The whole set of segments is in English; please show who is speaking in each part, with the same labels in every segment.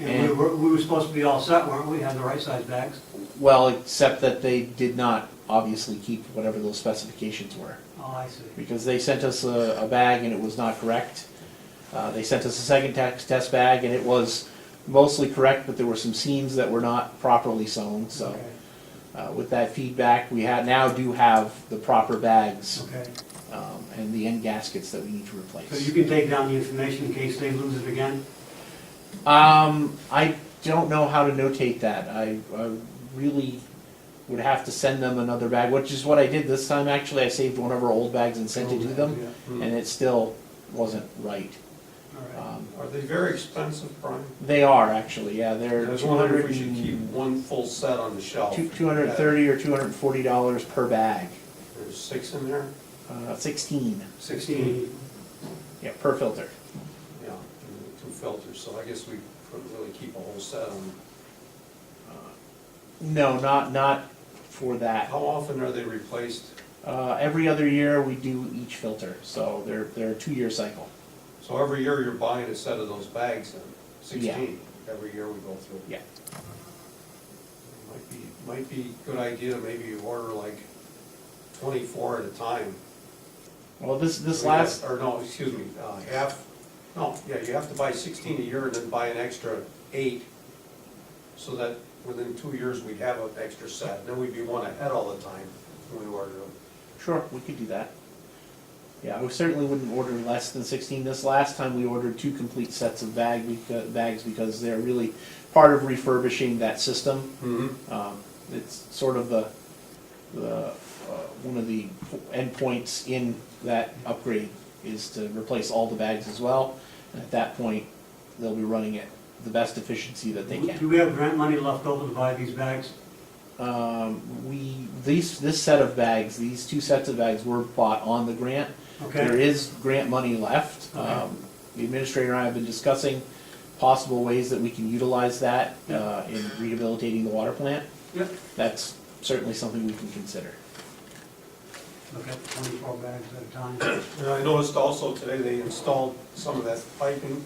Speaker 1: And we were, we were supposed to be all set, weren't we, had the right size bags?
Speaker 2: Well, except that they did not obviously keep whatever those specifications were.
Speaker 1: Oh, I see.
Speaker 2: Because they sent us a, a bag and it was not correct. Uh, they sent us a second tax test bag and it was mostly correct, but there were some seams that were not properly sewn, so.
Speaker 1: Okay,
Speaker 2: Uh, with that feedback, we ha now do have the proper bags,
Speaker 1: Okay,
Speaker 2: um, and the end gaskets that we need to
Speaker 1: so you
Speaker 2: replace.
Speaker 1: can take down the information in case they lose it again?
Speaker 2: Um, I don't know how to notate that. I, I really would have to send them another bag, which is what I did this time. Actually, I saved one of our old bags and sent it to them,
Speaker 1: Yeah,
Speaker 2: and it still wasn't right.
Speaker 1: All right.
Speaker 2: Um,
Speaker 3: Are they very expensive, Brian?
Speaker 2: They are actually, yeah,
Speaker 3: I
Speaker 2: they're
Speaker 3: was
Speaker 2: two
Speaker 3: wondering
Speaker 2: hundred
Speaker 3: if we should keep
Speaker 2: and,
Speaker 3: one full set on the shelf.
Speaker 2: two hundred and thirty or two hundred and forty dollars per bag.
Speaker 3: There's six in there?
Speaker 2: Uh, sixteen,
Speaker 3: Sixteen.
Speaker 2: yeah, per filter.
Speaker 3: Yeah, and two filters, so I guess we couldn't really keep a whole set on.
Speaker 2: Uh, No, not, not for that.
Speaker 3: How often are they replaced?
Speaker 2: Uh, every other year, we do each filter, so they're, they're a two-year cycle.
Speaker 3: So every year you're buying a set of those bags then,
Speaker 2: Yeah.
Speaker 3: sixteen, every year we go through.
Speaker 2: Yeah.
Speaker 3: Might be, might be a good idea, maybe you order like twenty-four at a time.
Speaker 2: Well, this, this
Speaker 3: We have-
Speaker 2: last,
Speaker 3: Or no, excuse me, uh, half, no, yeah, you have to buy sixteen a year and then buy an extra eight, so that within two years, we'd have an extra set, and then we'd be one ahead all the time when we ordered them.
Speaker 2: sure, we could do that. Yeah, we certainly wouldn't order less than sixteen. This last time, we ordered two complete sets of bag, becau- bags because they're really part of refurbishing that system.
Speaker 3: Mm-hmm.
Speaker 2: Um, it's sort of the, the, uh, one of the endpoints in that upgrade is to replace all the bags as well. And at that point, they'll be running at the best efficiency that they can.
Speaker 1: Do we have grant money left over to buy these bags?
Speaker 2: Um, we, these, this set of bags, these two sets of bags were bought on the grant. There
Speaker 1: Okay,
Speaker 2: is grant money left. Um, the administrator and I have been discussing possible ways that we can utilize that, uh, in rehabilitating the water plant.
Speaker 1: Yep.
Speaker 2: That's certainly something we can consider.
Speaker 1: okay, twenty-four bags at a time.
Speaker 3: And I noticed also today, they installed some of that piping,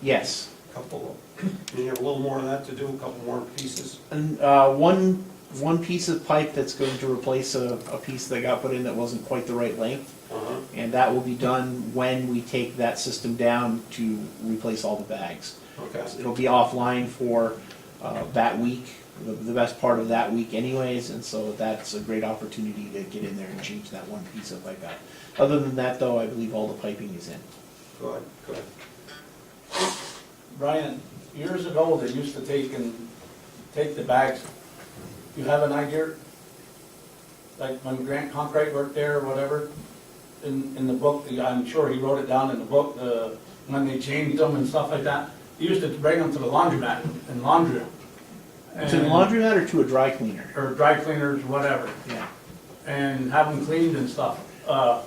Speaker 2: Yes,
Speaker 3: a couple of, you have a little more of that to do, a couple more pieces.
Speaker 2: and, uh, one, one piece of pipe that's going to replace a, a piece that got put in that wasn't quite the right length.
Speaker 3: Uh-huh.
Speaker 2: And that will be done when we take that system down to replace all the bags.
Speaker 3: Okay,
Speaker 2: It'll be offline for uh, that week, the- the best part of that week anyways, and so that's a great opportunity to get in there and change that one piece of pipe out. Other than that, though, I believe all the piping is in.
Speaker 3: good, good.
Speaker 4: Brian, years ago, they used to take and, take the bags. You have an idea? Like when Grant Conkright worked there or whatever, in, in the book, I'm sure he wrote it down in the book, the, when they changed them and stuff like that. He used to bring them to the laundromat and laundry them.
Speaker 2: To the laundromat or to a dry cleaner?
Speaker 4: Or dry cleaners, whatever,
Speaker 2: Yeah.
Speaker 4: and have them cleaned and stuff. Uh,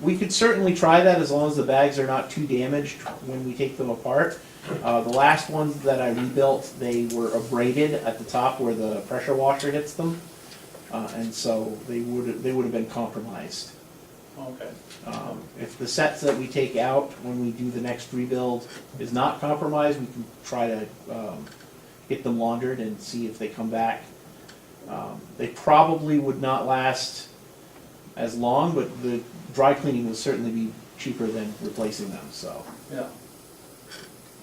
Speaker 2: We could certainly try that as long as the bags are not too damaged when we take them apart. Uh, The last ones that I rebuilt, they were abraded at the top where the pressure washer hits them. uh, And so they would, they would have been compromised.
Speaker 4: okay.
Speaker 2: Um, If the sets that we take out when we do the next rebuild is not compromised, we can try to um, get them laundered and see if they come back. Um, They probably would not last as long, but the dry cleaning will certainly be cheaper than replacing them, so.
Speaker 4: Yeah.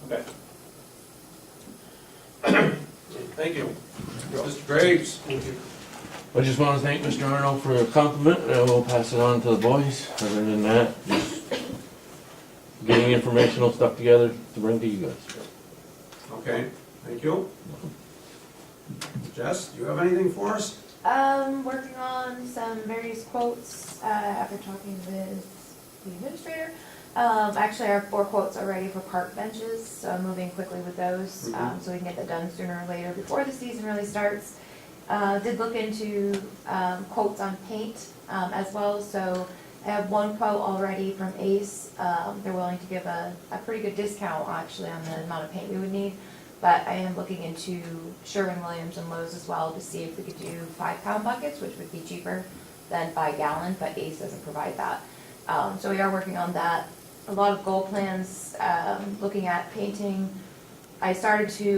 Speaker 4: Okay.
Speaker 3: Thank you. Mr. Graves? Thank you.
Speaker 5: I just want to thank Mr. Arnold for a compliment, and I will pass it on to the boys. Other than that, just getting informational stuff together to bring to you guys.
Speaker 3: Okay, thank you. Jess, do you have anything for us?
Speaker 6: Um, working on some various quotes, uh, after talking with the administrator. Um, actually, our four quotes are ready for park benches, so I'm moving quickly with those, um, so we can get that done sooner or later before the season really starts. Uh, did look into, um, quotes on paint, um, as well, so I have one quote already from Ace. Um, they're willing to give a, a pretty good discount, actually, on the amount of paint we would need. But I am looking into Sherwin-Williams and Lowe's as well to see if we could do five-pound buckets, which would be cheaper than by gallon, but Ace doesn't provide that. Um, so we are working on that. A lot of goal plans, um, looking at painting. I started to